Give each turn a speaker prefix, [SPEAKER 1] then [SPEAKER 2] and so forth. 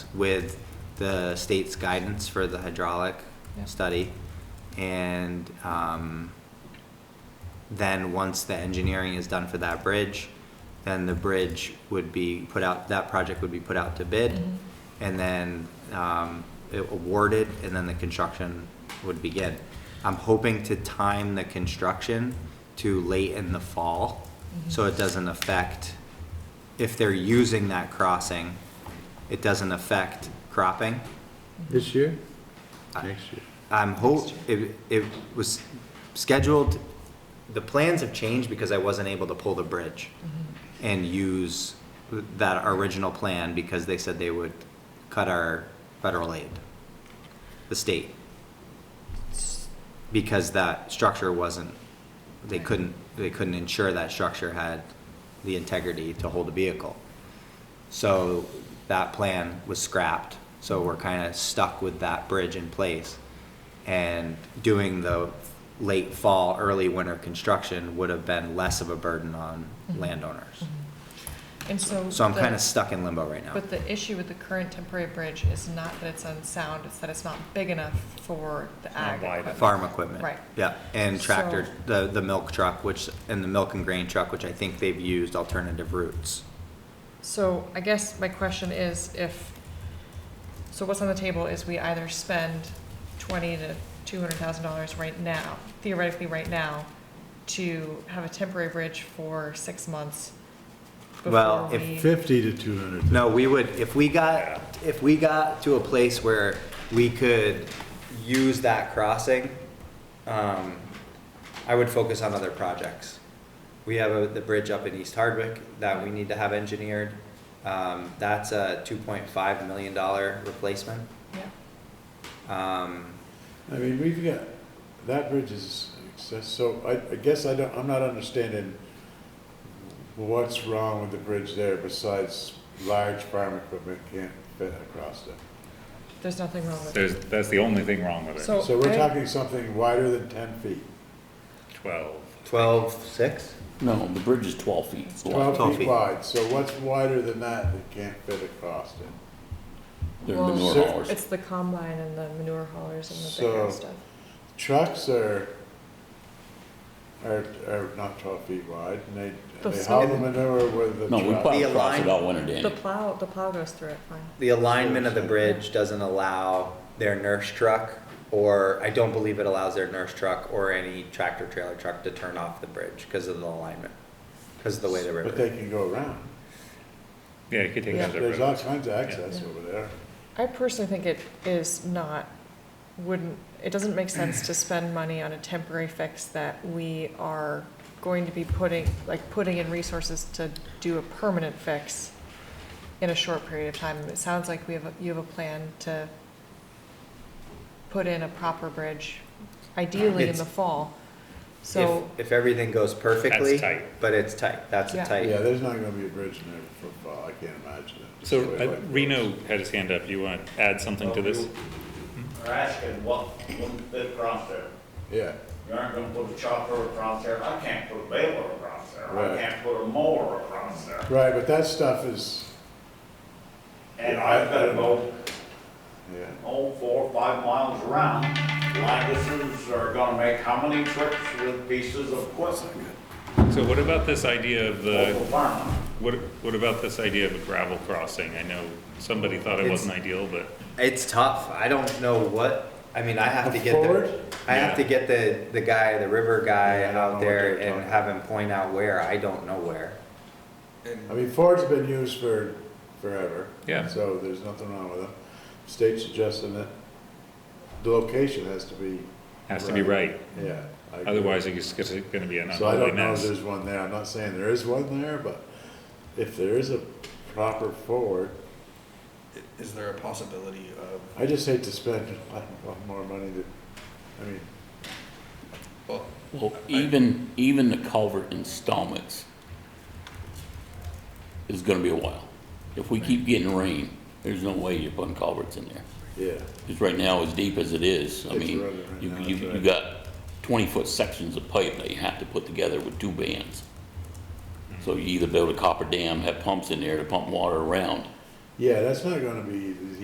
[SPEAKER 1] with the state's guidance for the hydraulic
[SPEAKER 2] Yeah.
[SPEAKER 1] study. And, um, then once the engineering is done for that bridge, then the bridge would be put out, that project would be put out to bid.
[SPEAKER 2] Mhm.
[SPEAKER 1] And then, um, it awarded and then the construction would begin. I'm hoping to time the construction to late in the fall, so it doesn't affect, if they're using that crossing, it doesn't affect cropping.
[SPEAKER 3] This year?
[SPEAKER 1] I-
[SPEAKER 3] Next year.
[SPEAKER 1] I'm hope, it, it was scheduled, the plans have changed because I wasn't able to pull the bridge and use that original plan because they said they would cut our federal aid, the state. Because that structure wasn't, they couldn't, they couldn't ensure that structure had the integrity to hold a vehicle. So that plan was scrapped, so we're kind of stuck with that bridge in place. And doing the late fall, early winter construction would have been less of a burden on
[SPEAKER 2] Mhm.
[SPEAKER 1] landowners.
[SPEAKER 2] And so.
[SPEAKER 1] So I'm
[SPEAKER 2] the-
[SPEAKER 1] kind of stuck in limbo right now.
[SPEAKER 2] But the issue with the current temporary bridge is not that it's unsound, it's that it's not big enough for the
[SPEAKER 4] not
[SPEAKER 2] ag.
[SPEAKER 4] wide
[SPEAKER 2] equipment.
[SPEAKER 1] Farm equipment.
[SPEAKER 2] Right.
[SPEAKER 1] Yeah, and tractor,
[SPEAKER 2] So-
[SPEAKER 1] the, the milk truck, which, and the milk and grain truck, which I think they've used alternative routes.
[SPEAKER 2] So I guess my question is if, so what's on the table is we either spend twenty to two hundred thousand dollars right now, theoretically right now, to have a temporary bridge for six months
[SPEAKER 1] Well,
[SPEAKER 2] before
[SPEAKER 1] if
[SPEAKER 2] we.
[SPEAKER 3] Fifty to two hundred.
[SPEAKER 1] No, we would, if we got, if we got to a place where we could use that crossing, um, I would focus on other projects. We have a- the bridge up in East Hardwick that we need to have engineered. Um, that's a two point five million dollar replacement.
[SPEAKER 2] Yeah.
[SPEAKER 1] Um,
[SPEAKER 3] I mean, we've got, that bridge is, excess- so I, I guess I don't, I'm not understanding what's wrong with the bridge there besides large farm equipment can't fit across it.
[SPEAKER 2] There's nothing wrong with it.
[SPEAKER 4] There's, that's the only thing wrong with it.
[SPEAKER 2] So-
[SPEAKER 3] So we're
[SPEAKER 2] Oh, I-
[SPEAKER 3] talking something wider than ten feet,
[SPEAKER 4] Twelve.
[SPEAKER 1] twelve six?
[SPEAKER 5] No, the bridge is twelve feet. wide.
[SPEAKER 3] twelve
[SPEAKER 1] 12
[SPEAKER 3] feet
[SPEAKER 1] feet.
[SPEAKER 3] wide, so what's wider than that that can't fit across it?
[SPEAKER 5] They're
[SPEAKER 2] Well,
[SPEAKER 5] manure
[SPEAKER 3] So-
[SPEAKER 5] haulers.
[SPEAKER 2] It's the combine and the manure haulers and the bigger
[SPEAKER 3] So-
[SPEAKER 2] stuff.
[SPEAKER 3] Trucks are, are, are not twelve feet wide, and they,
[SPEAKER 2] But
[SPEAKER 3] they
[SPEAKER 2] so-
[SPEAKER 3] haul the manure with the
[SPEAKER 5] No, we
[SPEAKER 3] truck.
[SPEAKER 5] plow
[SPEAKER 1] The
[SPEAKER 5] across
[SPEAKER 1] align-
[SPEAKER 5] it all winter, Danny.
[SPEAKER 2] The plow, the plow goes through it fine.
[SPEAKER 1] The alignment of the bridge doesn't allow their nurse truck, or I don't believe it allows their nurse truck or any tractor trailer truck to turn off the bridge because of the alignment, because of the way the
[SPEAKER 3] But
[SPEAKER 1] river.
[SPEAKER 3] they can go around.
[SPEAKER 4] Yeah, you could take
[SPEAKER 2] Yeah.
[SPEAKER 4] another
[SPEAKER 3] There's
[SPEAKER 4] road.
[SPEAKER 3] all kinds of access over there.
[SPEAKER 2] I personally think it is not, wouldn't, it doesn't make sense to spend money on a temporary fix that we are going to be putting, like, putting in resources to do a permanent fix in a short period of time. It sounds like we have, a- you have a plan to put in a proper bridge, ideally in the
[SPEAKER 1] It's-
[SPEAKER 2] fall. So,
[SPEAKER 1] If, if everything goes perfectly.
[SPEAKER 4] That's tight.
[SPEAKER 1] But it's tight, that's a
[SPEAKER 2] Yeah.
[SPEAKER 3] Yeah,
[SPEAKER 1] tight.
[SPEAKER 3] there's not gonna be a bridge in there for football, I can't imagine it.
[SPEAKER 4] So
[SPEAKER 3] Way
[SPEAKER 4] uh,
[SPEAKER 3] like
[SPEAKER 4] Reno had his hand up. You want to add something to this?
[SPEAKER 6] Are asking what, what bit across there.
[SPEAKER 3] those. Yeah,
[SPEAKER 6] You aren't gonna put a chopper across there, I can't put a baler across there, I
[SPEAKER 3] Right.
[SPEAKER 6] can't put a mower across there.
[SPEAKER 3] right, but that stuff is,
[SPEAKER 6] And
[SPEAKER 3] Yeah,
[SPEAKER 6] I've
[SPEAKER 3] I-
[SPEAKER 6] gotta go,
[SPEAKER 3] yeah,
[SPEAKER 6] oh, four, or five miles around. Landis's are gonna make how many trips with pieces of equipment
[SPEAKER 4] So what about this idea of
[SPEAKER 6] over the
[SPEAKER 4] the,
[SPEAKER 6] farm?
[SPEAKER 4] what, what about this idea of a gravel crossing? I know somebody thought it
[SPEAKER 1] It's-
[SPEAKER 4] wasn't ideal, but
[SPEAKER 1] It's tough, I don't know what, I mean, I have to
[SPEAKER 3] A
[SPEAKER 1] get
[SPEAKER 3] forward?
[SPEAKER 1] the, I have to
[SPEAKER 4] Yeah.
[SPEAKER 1] get the, the guy, the river guy
[SPEAKER 3] Yeah, I don't know
[SPEAKER 1] out
[SPEAKER 3] what
[SPEAKER 1] there
[SPEAKER 3] they're
[SPEAKER 1] and
[SPEAKER 3] talking
[SPEAKER 1] have him point out where, I don't know where.
[SPEAKER 3] I mean, Ford's been used for forever.
[SPEAKER 4] Yeah.
[SPEAKER 3] So there's nothing wrong with them. State suggesting that the location has to be,
[SPEAKER 4] has to be right.
[SPEAKER 3] yeah. I agree.
[SPEAKER 4] Otherwise, it's going to be an
[SPEAKER 3] So I
[SPEAKER 4] unholy
[SPEAKER 3] don't know if
[SPEAKER 4] mess.
[SPEAKER 3] there's one there, I'm not saying there is one there, but if there is a proper forward,
[SPEAKER 7] Is there a possibility of,
[SPEAKER 3] I just hate to spend a lot lot more money to, I mean,
[SPEAKER 7] well,
[SPEAKER 5] Well, even, even the culvert installments is gonna be a while. If we keep getting rain, there's no way you're putting culverts in there.
[SPEAKER 3] yeah.
[SPEAKER 5] Because right now, as deep as it is, I
[SPEAKER 3] It's
[SPEAKER 5] mean,
[SPEAKER 3] running right
[SPEAKER 5] you,
[SPEAKER 3] now,
[SPEAKER 5] you,
[SPEAKER 3] that's
[SPEAKER 5] you
[SPEAKER 3] right.
[SPEAKER 5] got twenty-foot sections of pipe that you have to put together with two bands. So you either build a copper dam, have pumps in there to pump water around,
[SPEAKER 3] Yeah, that's not gonna be easy.